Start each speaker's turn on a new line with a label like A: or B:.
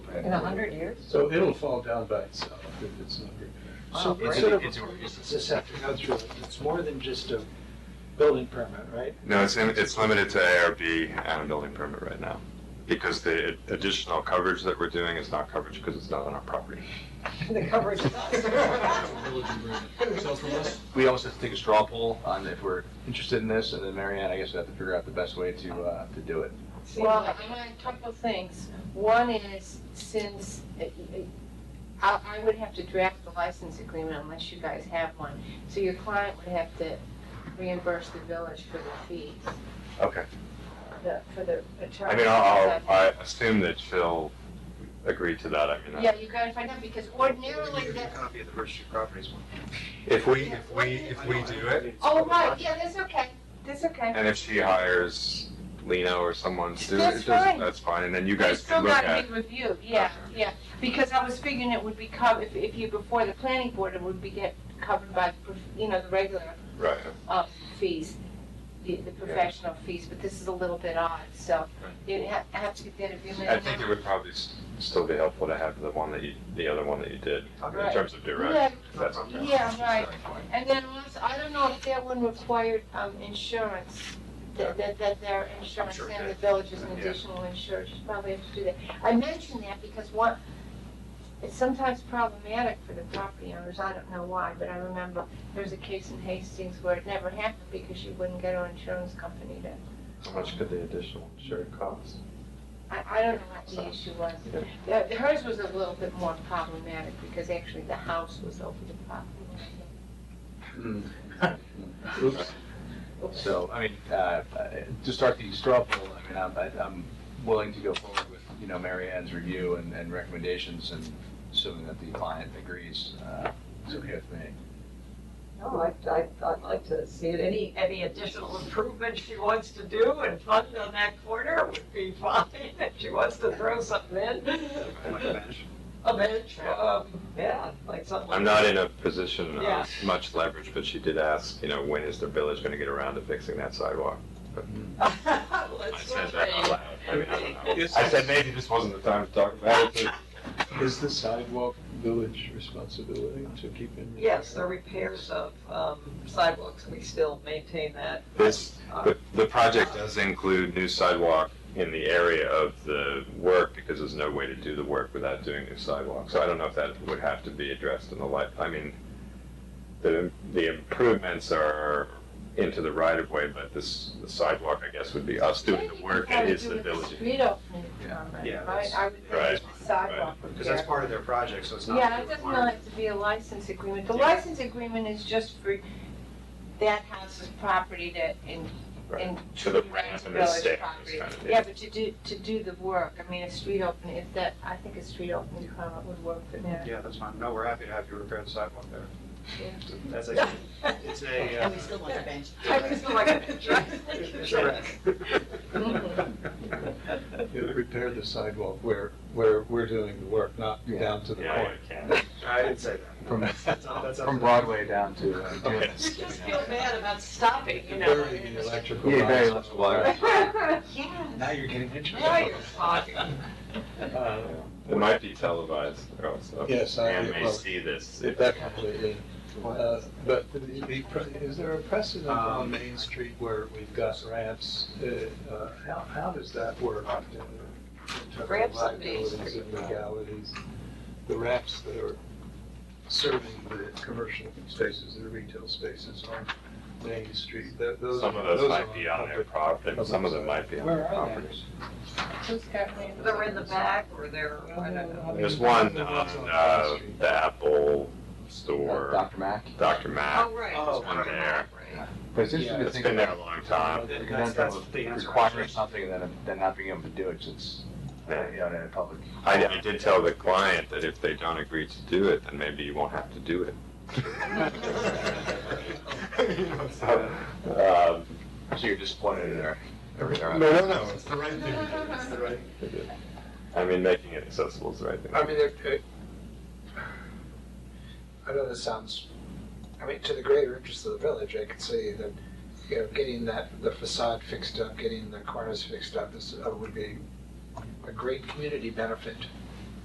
A: In a hundred years?
B: So it'll fall down by itself if it's not repaired.
C: So
A: Wow,
C: it's
A: great.
C: sort of,
D: It's a- it's a-
C: this have to go through, it's more than just a building permit, right?
E: No, it's, in- it's limited to ARB and a building permit right now, because the additional coverage that we're doing is not coverage because it's not on our property.
A: The coverage is us.
F: Village agreement. So from us,
D: We always have to take a straw poll on if we're interested in this, and then Marianne, I guess we have to figure out the best way to, uh, to do it.
A: Well, I want a couple of things. One is, since, uh, I, I would have to draft the license agreement unless you guys have one. So your client would have to reimburse the village for the fees,
E: Okay.
A: the- for the attorney.
E: I mean, I'll, I assume that she'll agree to that, I mean. uh,
A: Yeah, you gotta find out, because ordinarily, that-
D: copy of the registry properties one.
E: If we, if we, if we do it,
A: oh, right, yeah, that's okay, that's okay.
E: and if she hires Lino or someone to do it,
A: That's
E: it,
A: fine.
E: doesn't- that's fine, and then you
A: But
E: guys
A: it's still
E: can look
A: got
E: at.
A: to be reviewed, yeah, yeah, because I was figuring it would be covered, if, if you, before the planning board, it would be get covered by, the prof- you know, the regular
E: Right.
A: uh, fees, the, the professional fees, but this is a little bit odd, so you ha- have to get that agreement.
E: I think it would probably s- still be helpful to have the one that you, the other one that you did, in
A: Right.
E: terms of direct,
A: Yeah,
E: if that's okay.
A: yeah, right, and then also, I don't know if that one required, um, insurance, that, that, that their insurance
E: sure it
A: and the
E: did.
A: village is an
E: Yeah.
A: additional insured, you probably have to do that. I mention that because one, it's sometimes problematic for the property owners, I don't know why, but I remember there was a case in Hastings where it never happened because you wouldn't get an insurance company to
D: How much could the additional insured cost?
A: I, I don't know what the issue was. The- the- Hers was a little bit more problematic because actually the house was over the property.
D: Oops. So, I mean, uh, uh, to start the straw poll, I mean, I'm, I- I'm willing to go forward with, you know, Mary Ann's review and, and recommendations, and assuming that the client agrees, uh, it's okay with me.
G: No, I, I, I'd like to see it, any, any additional improvement she wants to do and fund on that corner would be fine, if she wants to throw something in. A bench, um, yeah, like something.
E: I'm not in a position
G: Yeah.
E: of much leverage, but she did ask, you know, when is the village gonna get around to fixing that sidewalk? I
G: Let's
E: said that out loud, I mean, I don't know.
B: Is-
E: I said maybe this wasn't the time to talk about it,
B: Is the sidewalk village responsibility to keep in? repair?
G: Yes, the repairs of um, sidewalks, we still maintain that.
E: but this, the, the project does include new sidewalk in the area of the work, because there's no way to do the work without doing new sidewalk, so I don't know if that would have to be addressed in the light, I mean, the, the improvements are into the right of way, but this the sidewalk, I guess, would be us doing the work, it is the village.
A: Street opening,
H: Yeah,
A: right?
H: that's-
A: I would
E: Right,
A: think the sidewalk
H: Because that's
A: repair.
H: part of their project, so it's not.
A: Yeah, it doesn't really have to be a license agreement. The license agreement is just for that house's property to, in,
E: Right.
A: in.
E: For the ramp and the
A: village
E: stairs,
A: property.
E: kind of, yeah.
A: Yeah, but to do, to do the work, I mean, a street opening, if that, I think a street opening permit would work for that.
H: Yeah, that's fine. No, we're happy to have you repair the sidewalk there.
A: Yeah.
H: That's a, it's a. uh,
I: And we still want the bench.
G: I just feel like a picture.
H: It's a wreck.
B: You Repair the sidewalk where, where we're doing the work, not down to the
E: Yeah,
B: point.
E: yeah.
H: I didn't say
B: From,
H: that. That's up- that's up
D: From
H: to-
D: Broadway down to. uh,
B: Okay.
G: You just feel bad about stopping, you know.
B: bury the electrical.
D: Yeah, very
B: lines.
D: much wire.
G: Yeah,
D: Now you're getting interested.
G: now you're talking.
B: Uh,
E: It might be televised also.
B: Yes, I-
E: And may
B: well,
E: see this.
B: Definitely. Uh, But the- the pre- is there a precedent on
H: Um,
B: Main Street where we've got ramps? Uh, uh, How, how does that work? in terms of
G: Ramps on Main
B: liabilities and Legalities, the ramps that are serving the commercial spaces, the retail spaces on Main Street. Tho-
E: Some of those might be on their property, some of them might be on their
B: Where are they?
E: properties.
A: Who's got me?
G: They're in the back or they're, I don't know.
E: There's one on, uh, the Apple store,
D: Dr. Uh, Mack.
E: Dr. Mac,
G: Oh, right.
H: Oh,
E: one there.
G: Right.
D: But it's
B: Yeah,
D: interesting to
E: It's
D: think
E: been there a
D: about.
E: long time.
H: That's, that's the answer.
D: Requiring something and then, then not being able to do it, 'cause it's, uh, you know, in a public.
E: I, I did tell the client that if they don't agree to do it, then maybe you won't have to do it. You know, so,
D: So you're disappointed in their,
E: um,
D: everything.
E: No, no, no.
F: it's the right thing to do, it's the right
E: I mean, making it accessible is the right thing.
J: I mean, it, it, I know this sounds, I mean, to the greater interest of the village, I could see that, you know, getting that, the facade fixed up, getting the corners fixed up is, uh, would be a great community benefit